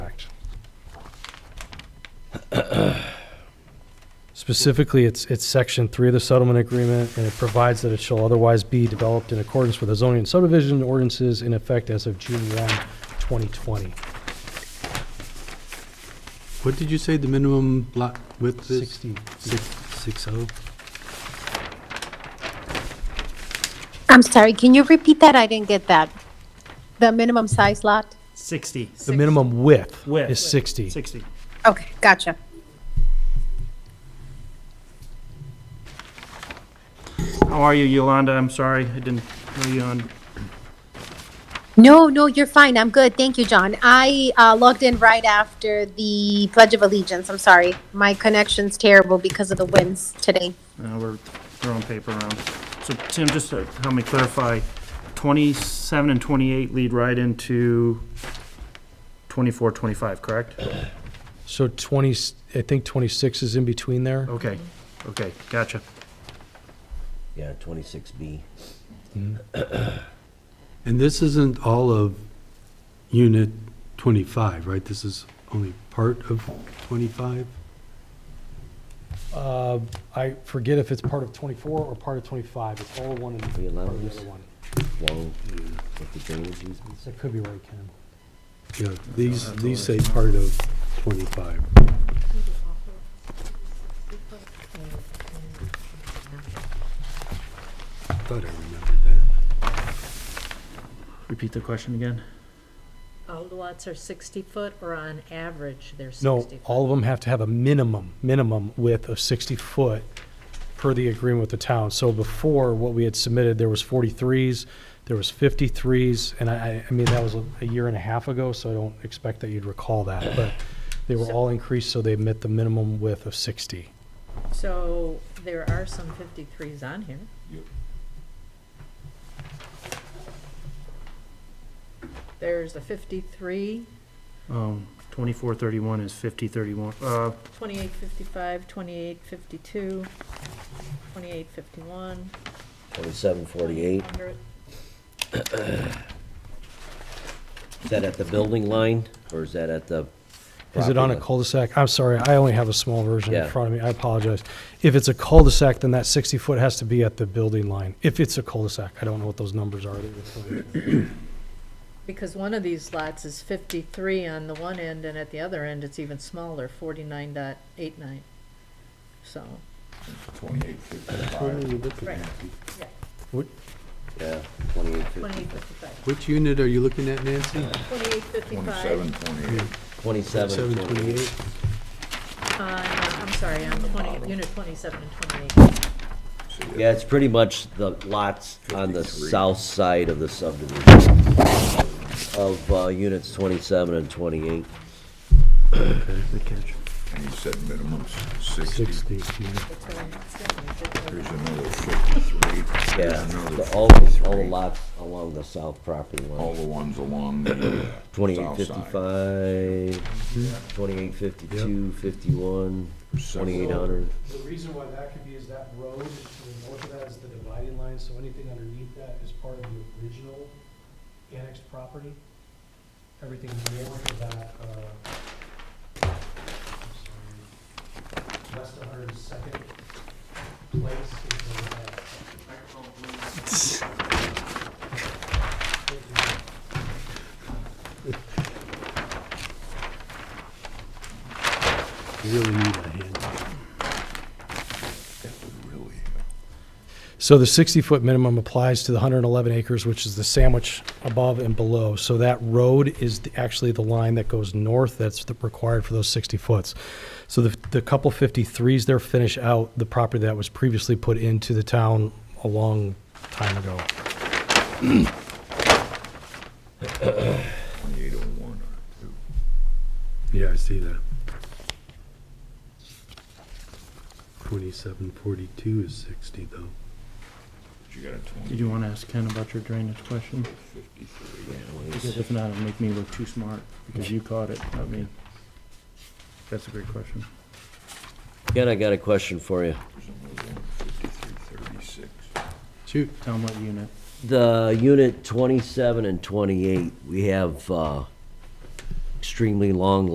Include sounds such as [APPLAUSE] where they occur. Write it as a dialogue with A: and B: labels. A: [CLEARS THROAT] Specifically, it's, it's section three of the settlement agreement, and it provides that it shall otherwise be developed in accordance with the zoning and subdivision ordinances in effect as of June 1, 2020.
B: What did you say the minimum lot width is?
A: 60.
B: Six, six oh?
C: I'm sorry, can you repeat that? I didn't get that. The minimum size lot?
D: 60,
A: The minimum width
D: Width.
A: is 60.
D: 60.
C: Okay, gotcha.
D: How are you, Yolanda? I'm sorry, I didn't know you on.
C: No, no, you're fine. I'm good. Thank you, John. I uh, logged in right after the Pledge of Allegiance. I'm sorry. My connection's terrible because of the winds today.
D: Uh, we're throwing paper around. So Tim, just to help me clarify, 27 and 28 lead right into 24, 25, correct?
A: So 20, I think 26 is in between there.
B: Oh.
D: Okay, okay, gotcha.
E: Yeah, 26B.
B: And this isn't all of unit 25, right? This is only part of 25?
A: Uh, I forget if it's part of 24 or part of 25. It's all one and part
E: We
A: of
E: allow
A: the
E: this?
A: other one.
E: Flow with the drainage easements.
A: That could be right, Ken.
B: Yeah, these, these say part of 25. Thought I remembered that.
D: Repeat the question again.
F: All the lots are 60 foot, or on average, they're 60
A: No,
F: foot?
A: all of them have to have a minimum, minimum width of 60 foot per the agreement with the town. So before, what we had submitted, there was 43s, there was 53s, and I, I- I mean, that was a- a year and a half ago, so I don't expect that you'd recall that, but they were all increased, so they met the minimum width of 60.
F: So there are some 53s on here. There's a 53,
D: Um, 24, 31 is 50, 31, uh,
F: 28, 55, 28, 52, 28, 51,
E: 2748.
F: 100.
E: Is that at the building line or is that at the?
A: Is it on a
E: property line?
A: cul-de-sac? I'm sorry, I only have a small version in
E: Yeah.
A: front of me, I apologize. If it's a cul-de-sac, then that 60 foot has to be at the building line, if it's a cul-de-sac. I don't know what those numbers are. that you're putting.
F: Because one of these lots is 53 on the one end, and at the other end, it's even smaller, 49.89. So, right,
E: Yeah, 2850.
F: 28, 55,
B: Which unit are you looking at, Nancy?
F: 28, 55.
E: 27, 28.
B: 728?
F: on, uh, I'm sorry, on 20, unit 27 and 28.
E: Yeah, it's pretty much the lots on the south side of the subdivision of uh, units 27 and 28.
G: And you said minimum sixty,
B: 60, yeah.
F: It's going- it's going to be-
G: there's another fifty-three. There's
E: Yeah,
G: another
E: the- all, the- all the
G: 53.
E: lots along the south property line.
G: All the ones along the. uh,
E: Twenty-eight
G: south side.
E: fifty-five, twenty-eight fifty-two, fifty-one, twenty-eight hundred.
A: The reason why that could be is that road to the north of that is the dividing line, so anything underneath that is part of the original annexed property. Everything north of that, uh, I'm sorry, west of Hundred and Second Place is the uh,
B: You really need a hand.
G: That would really,
A: So the 60-foot minimum applies to the 111 acres, which is the sandwich above and below. So that road is the- actually the line that goes north that's the- required for those 60 foots. So the, the couple 53s there finish out the property that was previously put into the town a long time ago.
G: twenty-eight oh one or two.
B: Yeah, I see that. 2742 is 60, though.
G: But you got a
D: did
G: twenty,
D: you want to ask Ken about your drainage question?
G: fifty-three.
D: Because if not, it'll make me look too smart, because you caught it, not me. That's a great question.
E: Ken, I got a question for you.
G: There's another one, fifty-three thirty-six.
B: Shoot.
D: Tell him what unit.
E: The unit twenty-seven and twenty-eight, we have, uh, extremely long